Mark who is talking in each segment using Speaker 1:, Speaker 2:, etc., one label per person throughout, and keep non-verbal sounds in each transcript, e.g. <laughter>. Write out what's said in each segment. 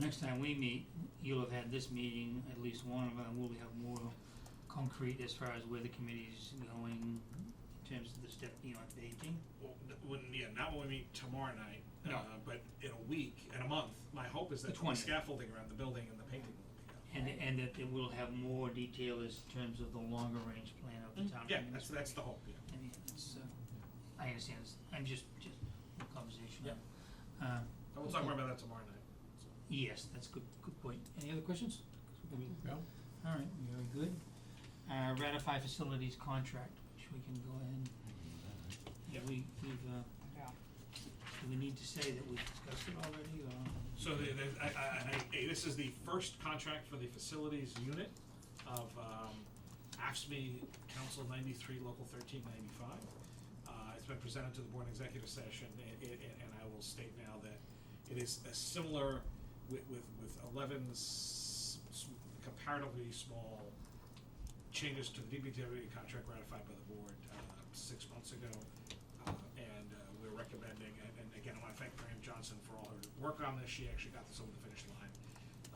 Speaker 1: next time we meet, you'll have had this meeting, at least one of them, we'll have more concrete as far as where the committee's going in terms of the step beyond baking.
Speaker 2: Well, n- when, yeah, not when we meet tomorrow night,
Speaker 1: No.
Speaker 2: uh, but in a week, in a month, my hope is that
Speaker 1: The
Speaker 2: the
Speaker 1: 20th.
Speaker 2: scaffolding around the building and the painting will be done.
Speaker 1: And, and that it will have more detail as terms of the longer range plan of the town.
Speaker 2: Mm-hmm. Yeah, that's, that's the hope, yeah.
Speaker 1: I mean, it's, uh, I understand, it's, I'm just, just a conversation.
Speaker 2: Yeah.
Speaker 1: Um,
Speaker 2: And we'll talk more about that tomorrow night.
Speaker 1: yes, that's good, good point. Any other questions?
Speaker 3: No.
Speaker 1: All right, very good. Uh, ratify facilities contract, which we can go ahead and,
Speaker 2: Yep.
Speaker 1: we, we've, uh,
Speaker 4: Yeah.
Speaker 1: do we need to say that we discussed it already, or?
Speaker 2: So the, the, I, I, I- I, this is the first contract for the facilities unit of, um, AFSMI Council ninety-three, Local thirteen ninety-five. Uh, it's been presented to the board in executive session, and, and, and I will state now that it is a similar with, with, with eleven s- s- comparatively small changes to the DBW contract ratified by the board, uh, six months ago. Uh, and, uh, we're recommending, and, and again, I wanna thank Miriam Johnson for all her work on this, she actually got this over the finish line,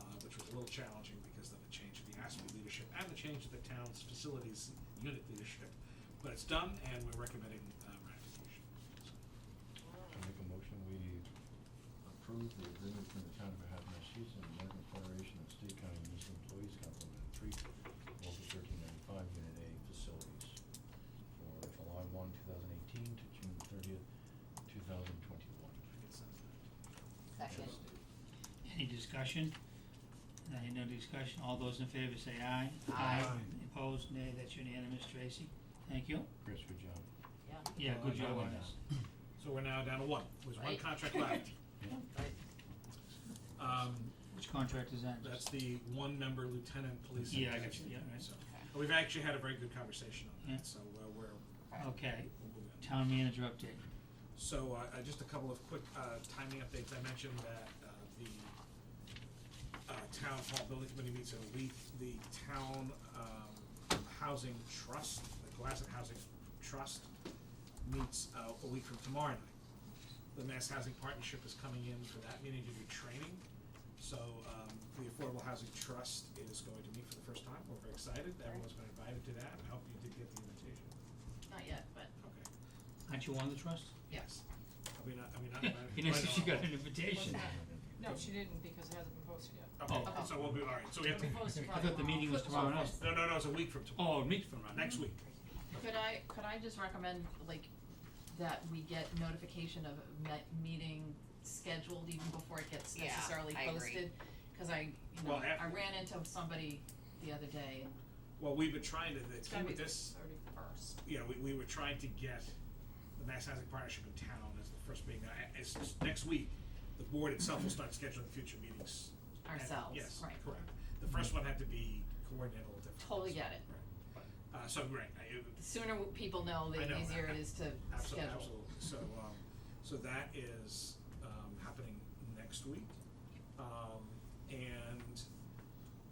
Speaker 2: uh, which was a little challenging because of the change in the ASME leadership and the change of the town's facilities unit leadership. But it's done, and we're recommending, uh, ratification.
Speaker 3: I make a motion, we approve the agreement between the town of Manhattan, Massachusetts and the American Federation of State County Municipal Employees Complement Three, Local thirteen ninety-five, Unit A, Facilities, for July one, two thousand eighteen to June thirtieth, two thousand twenty-one.
Speaker 4: Second.
Speaker 1: Any discussion? Uh, no discussion, all those in favor say aye.
Speaker 4: Aye.
Speaker 1: Opposed, nay, that's unanimous, Tracy, thank you.
Speaker 3: Chris, good job.
Speaker 4: Yeah.
Speaker 1: Yeah,
Speaker 2: Well,
Speaker 1: good
Speaker 2: I know
Speaker 1: job
Speaker 2: what
Speaker 1: on
Speaker 2: now.
Speaker 1: this.
Speaker 2: So we're now down to one, there's one
Speaker 4: Right.
Speaker 2: contract left.
Speaker 4: Right.
Speaker 2: Um,
Speaker 1: Which contract is that?
Speaker 2: That's the one member lieutenant police.
Speaker 1: Yeah, I
Speaker 2: and
Speaker 1: got
Speaker 2: captain.
Speaker 1: you. Yeah, right.
Speaker 2: So, We've actually had a very good conversation on
Speaker 1: Yeah.
Speaker 2: that, so uh, we're,
Speaker 1: Okay,
Speaker 2: we'll move in.
Speaker 1: town manager update.
Speaker 2: So, uh, uh, just a couple of quick, uh, timing updates, I mentioned that, uh, the, uh, town hall building committee meets in a week, the town, um, housing trust, the Cohasset Housing Trust meets, uh, a week from tomorrow night. The Mass Housing Partnership is coming in for that meeting to do training, so, um, the Affordable Housing Trust is going to meet for the first time, we're very excited, everyone's been invited to that, I hope you did get the invitation,
Speaker 4: Not yet, but
Speaker 2: okay.
Speaker 1: Aren't you on the trust?
Speaker 2: Yes. Are we not, are we
Speaker 1: <laughs>
Speaker 2: not invited?
Speaker 1: You know,
Speaker 2: Right,
Speaker 1: so she
Speaker 2: no.
Speaker 1: got an invitation.
Speaker 4: What's No, she didn't because it hasn't been posted yet.
Speaker 1: Oh.
Speaker 2: Okay, so we'll be, all right, so we have to, Oh,
Speaker 4: We'll post it
Speaker 1: I thought the
Speaker 4: probably
Speaker 1: meeting was
Speaker 4: tomorrow.
Speaker 1: tomorrow night.
Speaker 2: no, no, no, it's a week from tomorrow, Mm-hmm.
Speaker 1: Oh, meet from around.
Speaker 2: next week.
Speaker 4: Could I, could I just recommend, like, that we get notification of a me- meeting scheduled even before it gets
Speaker 5: Yeah,
Speaker 4: necessarily
Speaker 5: I agree.
Speaker 4: posted? Cause I, you know,
Speaker 2: Well, af-
Speaker 4: I ran into somebody the other day and
Speaker 2: Well, we've been trying to,
Speaker 4: it's
Speaker 2: the
Speaker 4: gotta
Speaker 2: key
Speaker 4: be
Speaker 2: with
Speaker 4: the
Speaker 2: this,
Speaker 4: thirty-first.
Speaker 2: you know, we, we were trying to get the Mass Housing Partnership in town as the first meeting, I, it's, it's next week, the board itself will start scheduling future meetings. And-
Speaker 4: Ourselves, right.
Speaker 2: Yes, correct, the first
Speaker 1: Mm-hmm.
Speaker 2: one had to be coordinated a little different.
Speaker 4: Totally get it.
Speaker 2: Right. Uh, so, right, I, it-
Speaker 4: The sooner w- people know, the
Speaker 2: I know,
Speaker 4: easier
Speaker 2: I-
Speaker 4: it is to
Speaker 2: Absolutely,
Speaker 4: schedule.
Speaker 2: absolutely.
Speaker 4: <laughs>
Speaker 2: So, um, so that is, um, happening next week. Um, and,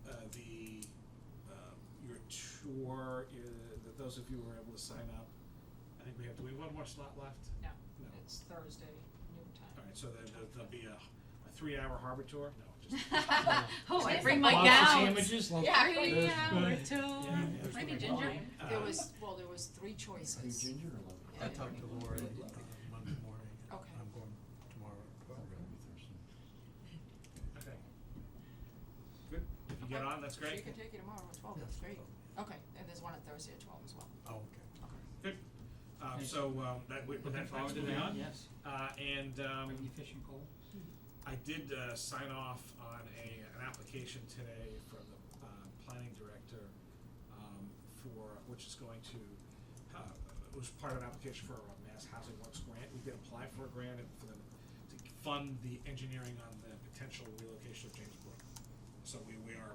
Speaker 2: uh, the, um, your tour, uh, that those of you who are able to sign up, I think we have, do we have one more slot left?
Speaker 6: No,
Speaker 2: No.
Speaker 6: it's Thursday, noon time.
Speaker 2: Alright, so there, there'll- there'll be a, a three-hour harbor tour? No, just.
Speaker 4: Oh, I bring my
Speaker 1: Lots of
Speaker 4: gowns.
Speaker 1: sandwiches, lots-
Speaker 4: Yeah, bring
Speaker 3: That's
Speaker 4: my gowns.
Speaker 3: good.
Speaker 2: Yeah, there's
Speaker 4: Maybe
Speaker 2: gonna be
Speaker 4: ginger.
Speaker 2: wine. Uh,
Speaker 6: There was, well, there was three choices.
Speaker 3: ginger or lemon?
Speaker 6: Yeah.
Speaker 7: I talked to Laura uh, Monday morning, and
Speaker 6: Okay.
Speaker 7: I'm going tomorrow.
Speaker 3: We're gonna be thirsty.
Speaker 6: <laughs>
Speaker 2: Okay. Good, if you get on, that's
Speaker 6: She
Speaker 2: great.
Speaker 6: can take you tomorrow at twelve, that's great. Okay, and there's one on Thursday at twelve as well.
Speaker 7: Oh, okay.
Speaker 2: Good. Um, so, um, that, we,
Speaker 1: Looking
Speaker 2: that, that's
Speaker 1: forward to
Speaker 2: moving
Speaker 1: that,
Speaker 2: on.
Speaker 1: Yes,
Speaker 2: Uh, and, um.
Speaker 1: bring your fishing pole.
Speaker 2: I did uh, sign off on a, an application today from the uh, planning director um, for, which is going to, uh, it was part of an application for a Mass Housing Works grant. We did apply for a grant and for them to fund the engineering on the potential relocation of James Brook. So we, we are,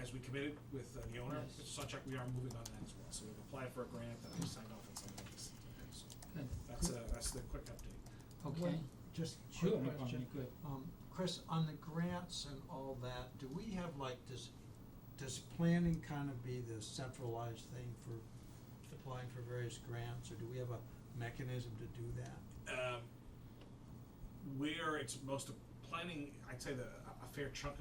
Speaker 2: as we committed with uh, the owner,
Speaker 1: Yes.
Speaker 2: Sawchuck, we are moving on that as well. So we've applied for a grant and I signed off on some of this. So
Speaker 1: Good.
Speaker 2: that's, uh, that's the quick update.
Speaker 1: Okay.
Speaker 7: Well, Just a
Speaker 1: Sure, no
Speaker 7: quick
Speaker 1: problem,
Speaker 7: question.
Speaker 1: you're good.
Speaker 7: Um, Chris, on the grants and all that, do we have like, does, does planning kind of be the centralized thing for applying for various grants, or do we have a mechanism to do that?
Speaker 2: um, where it's most planning, I'd say the, a fair chunk